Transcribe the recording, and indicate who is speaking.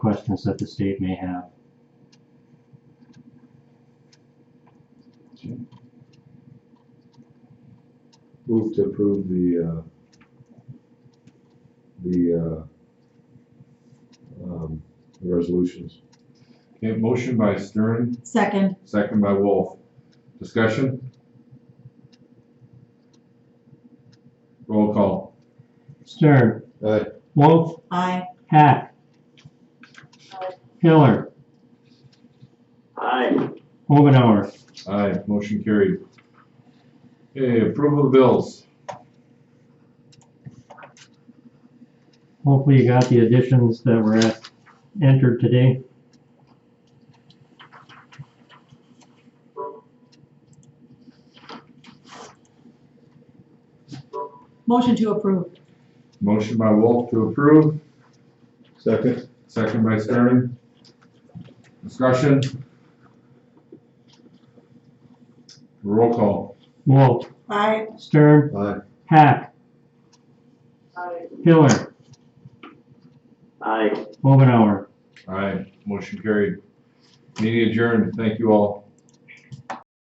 Speaker 1: questions that the state may have.
Speaker 2: Move to approve the, uh, the, uh, um, resolutions.
Speaker 3: Okay, motion by Stern,
Speaker 4: Second,
Speaker 3: second by Wolf. Discussion? Roll call.
Speaker 1: Stern,
Speaker 2: Aye.
Speaker 1: Wolf,
Speaker 4: aye.
Speaker 1: Hack. Hiller,
Speaker 5: Aye.
Speaker 1: Omenauer,
Speaker 3: Aye, motion carried. Okay, approval of bills.
Speaker 1: hopefully you got the additions that were at- entered today.
Speaker 4: Motion to approve.
Speaker 3: Motion by Wolf to approve,
Speaker 2: Second?
Speaker 3: second by Stern. Discussion? Roll call.
Speaker 1: Wolf,
Speaker 4: Aye.
Speaker 1: Stern,
Speaker 2: Aye.
Speaker 1: Hack,
Speaker 5: Aye.
Speaker 1: Hiller,
Speaker 5: Aye.
Speaker 1: Omenauer.
Speaker 3: Aye, motion carried. Meeting adjourned. Thank you all.